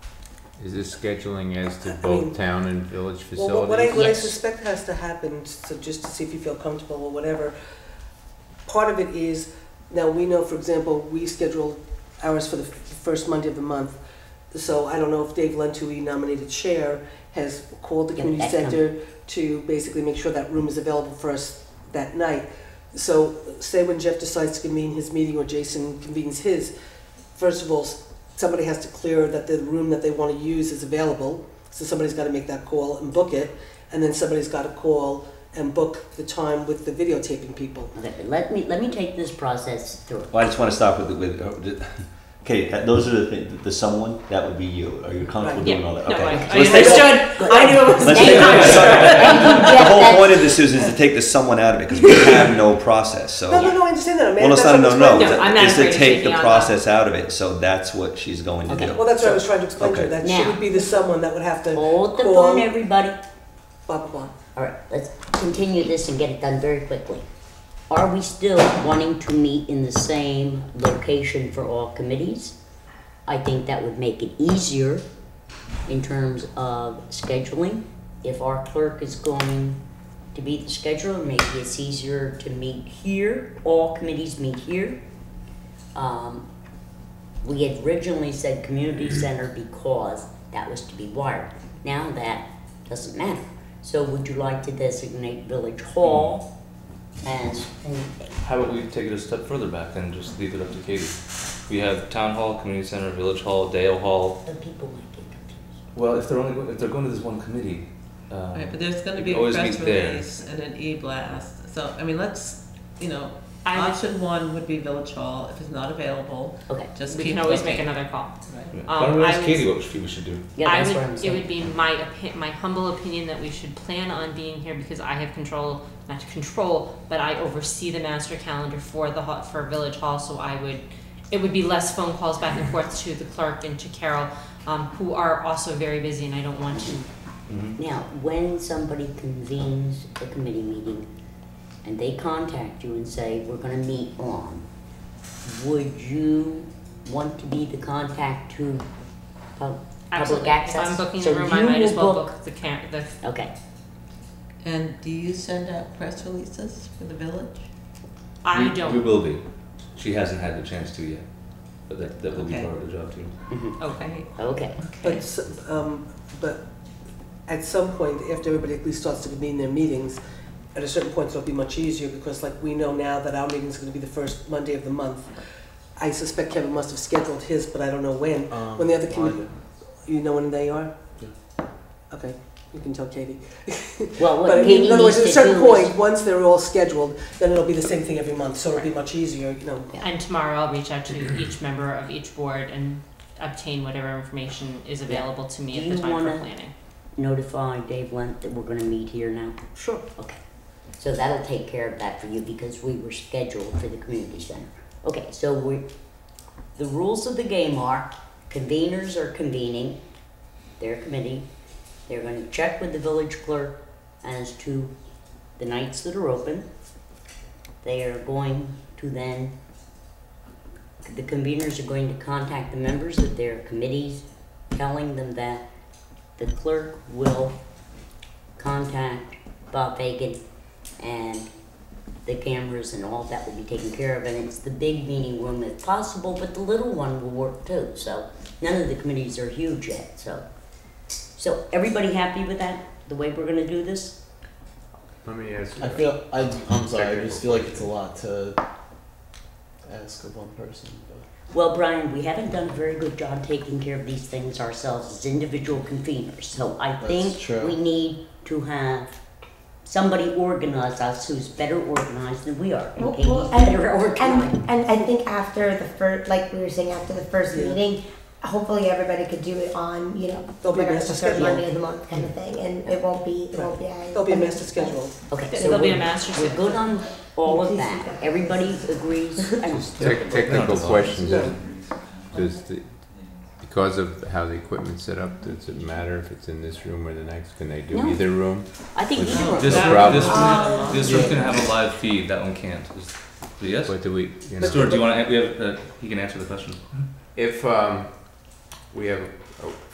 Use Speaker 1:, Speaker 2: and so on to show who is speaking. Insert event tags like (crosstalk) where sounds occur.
Speaker 1: Is this scheduling as to both town and village facilities?
Speaker 2: Well, what I, what I
Speaker 3: Yes.
Speaker 2: suspect has to happen, so just to see if you feel comfortable or whatever, part of it is, now we know, for example, we schedule ours for the f- first Monday of the month. So I don't know if Dave Lentui, nominated chair, has called the
Speaker 3: Yeah,
Speaker 2: community
Speaker 3: that's coming.
Speaker 2: center to basically make sure that room is available for us that night. So say when Jeff decides to convene his meeting or Jason convenes his, first of all, s- somebody has to clear that the room that they want to use is available. So somebody's got to make that call and book it, and then somebody's got to call and book the time with the videotaping people.
Speaker 3: Let let me, let me take this process through.
Speaker 4: Well, I just want to stop with, with, uh, d- (laughs) okay, that, those are the things, the someone, that would be you. Are you comfortable
Speaker 2: Right.
Speaker 4: doing
Speaker 5: Yeah.
Speaker 4: all that?
Speaker 5: No,
Speaker 4: Okay.
Speaker 5: I-
Speaker 4: So
Speaker 5: I
Speaker 4: let's take-
Speaker 5: understood. I knew it was
Speaker 4: Let's
Speaker 3: Thank
Speaker 4: take,
Speaker 3: you.
Speaker 4: sorry. (laughs) The whole
Speaker 3: That's-
Speaker 4: point of this, Susan, is to take the someone out of it, because we have no process, so.
Speaker 2: No, no, no, I understand that. I mean,
Speaker 4: Well,
Speaker 2: (laughs)
Speaker 4: it's
Speaker 2: that's
Speaker 4: not,
Speaker 2: what I
Speaker 4: Oh, no,
Speaker 2: was
Speaker 4: no,
Speaker 2: trying
Speaker 5: No, I'm not
Speaker 4: it's
Speaker 5: afraid
Speaker 4: to
Speaker 5: of
Speaker 4: take the
Speaker 5: taking on
Speaker 4: process out of it, so that's what she's going to
Speaker 3: Okay.
Speaker 4: do.
Speaker 2: Well, that's what I was trying to explain to you,
Speaker 4: Okay.
Speaker 2: that
Speaker 3: Now.
Speaker 2: she would be the someone that would have to
Speaker 3: Hold the
Speaker 2: call,
Speaker 3: phone, everybody.
Speaker 2: blah, blah, blah.
Speaker 3: All right, let's continue this and get it done very quickly. Are we still wanting to meet in the same location for all committees? I think that would make it easier in terms of scheduling. If our clerk is going to be the scheduler, maybe it's easier to meet here, all committees meet here. Um, we had originally said community center because that was to be wired. Now that doesn't matter. So would you like to designate village hall as,
Speaker 6: How about we take it a step further back and just leave it up to Katie? We have town hall, community center, village hall, Dale hall.
Speaker 3: the people might get confused.
Speaker 6: Well, if they're only go- if they're going to this one committee, um,
Speaker 5: Right, but there's gonna
Speaker 6: We
Speaker 5: be a
Speaker 6: always
Speaker 5: press
Speaker 6: meet there.
Speaker 5: release and an e-blast, so, I mean, let's, you know,
Speaker 7: I would-
Speaker 5: option one would be Village Hall, if it's not available,
Speaker 3: Okay,
Speaker 5: just
Speaker 7: We
Speaker 5: keep
Speaker 7: can always
Speaker 5: looking.
Speaker 7: make another call.
Speaker 6: yeah.
Speaker 7: Um,
Speaker 6: why don't we
Speaker 7: I
Speaker 6: ask
Speaker 7: was-
Speaker 6: Katie what she, we should do?
Speaker 3: yeah,
Speaker 7: I
Speaker 3: that's what I'm
Speaker 7: would, it
Speaker 3: saying.
Speaker 7: would be my opi- my humble opinion that we should plan on being here because I have control, not control, but I oversee the master calendar for the hall, for Village Hall, so I would, it would be less phone calls back and forth to the clerk and to Carol, um, who are also very busy and I don't want to
Speaker 3: Now, when somebody convenes a committee meeting and they contact you and say, we're gonna meet on, would you want to be the contact to oh, pub- public
Speaker 7: Absolutely.
Speaker 3: access?
Speaker 7: If I'm booking
Speaker 3: So
Speaker 7: the room, I
Speaker 3: you
Speaker 7: might as
Speaker 3: will
Speaker 7: well book the cam- the
Speaker 3: Okay,
Speaker 5: And do you send out press releases for the village?
Speaker 7: I
Speaker 6: we,
Speaker 7: don't.
Speaker 6: We will be. She hasn't had the chance to yet, but that that will
Speaker 5: Okay.
Speaker 6: be part of the job too.
Speaker 7: Okay.
Speaker 3: mm-hmm, okay.
Speaker 2: But, s- um, but at some point, after everybody at least starts to convene their meetings, at a certain point, it'll be much easier, because like, we know now that our meeting's gonna be the first Monday of the month. I suspect Kevin must have scheduled his, but I don't know when. When the other committee, you know when they are? Okay, you can tell Katie.
Speaker 3: Well,
Speaker 2: But I
Speaker 3: what
Speaker 2: mean,
Speaker 3: Katie
Speaker 2: in other
Speaker 3: needs
Speaker 2: words,
Speaker 3: to
Speaker 2: at
Speaker 3: do
Speaker 2: a
Speaker 3: is.
Speaker 2: certain point, once they're all scheduled, then it'll be the same thing every month, so it'll be much easier, you know.
Speaker 3: Yeah.
Speaker 7: And tomorrow I'll reach
Speaker 3: (clears throat)
Speaker 7: out to each member of each board and obtain whatever information is available to me
Speaker 3: Do
Speaker 7: at the
Speaker 3: you
Speaker 7: time for
Speaker 3: wanna-
Speaker 7: planning.
Speaker 3: notify Dave Lent that we're gonna meet here now? Sure. Okay, so that'll take care of that for you because we were scheduled for the community center. Okay, so we, the rules of the game are conveners are convening their committee. They're gonna check with the village clerk as to the nights that are open. They are going to then, the conveners are going to contact the members of their committees, telling them that the clerk will contact Bob Bacon and the cameras and all that will be taken care of, and it's the big meeting room if possible, but the little one will work too, so none of the committees are huge yet, so. So, everybody happy with that, the way we're gonna do this?
Speaker 1: Let me ask you.
Speaker 8: I feel I, I'm sorry. I just feel like it's a lot to ask of one person. But
Speaker 3: Well, Brian, we haven't done a very good job taking care of these things ourselves as individual conveners, so I
Speaker 8: That's
Speaker 3: think
Speaker 8: true.
Speaker 3: we need to have somebody organize us who's better organized than we are.
Speaker 9: Well,
Speaker 3: Katie's
Speaker 9: well, and-
Speaker 3: better organized.
Speaker 9: And, and I think after the first, like we were saying, after the first
Speaker 2: Yeah.
Speaker 9: meeting, hopefully everybody could do it on, you know,
Speaker 2: There'll be a
Speaker 9: whatever,
Speaker 2: master
Speaker 9: the third
Speaker 2: schedule.
Speaker 9: Monday of the month kind of thing, and it won't be, it won't be.
Speaker 2: There'll be a master schedule.
Speaker 3: Okay,
Speaker 7: There-
Speaker 3: so
Speaker 7: there'll be a
Speaker 3: we're-
Speaker 7: master
Speaker 3: We're
Speaker 7: set.
Speaker 3: good on all of that. Everybody agrees. I'm
Speaker 1: Tec- Technical questions,
Speaker 2: Yeah.
Speaker 1: does the, because of how the equipment's set up, does it matter if it's in this room or the next? Can they do
Speaker 3: No.
Speaker 1: either room?
Speaker 3: I think
Speaker 1: This-
Speaker 3: sure.
Speaker 6: This
Speaker 1: That-
Speaker 6: room, this room,
Speaker 3: Oh.
Speaker 7: Um,
Speaker 6: this room can have a live feed. That one can't. Is- Yes.
Speaker 1: What do we, you know?
Speaker 6: Stuart, do you want to? We have. Uh, he can answer the question.
Speaker 1: If, um, we have a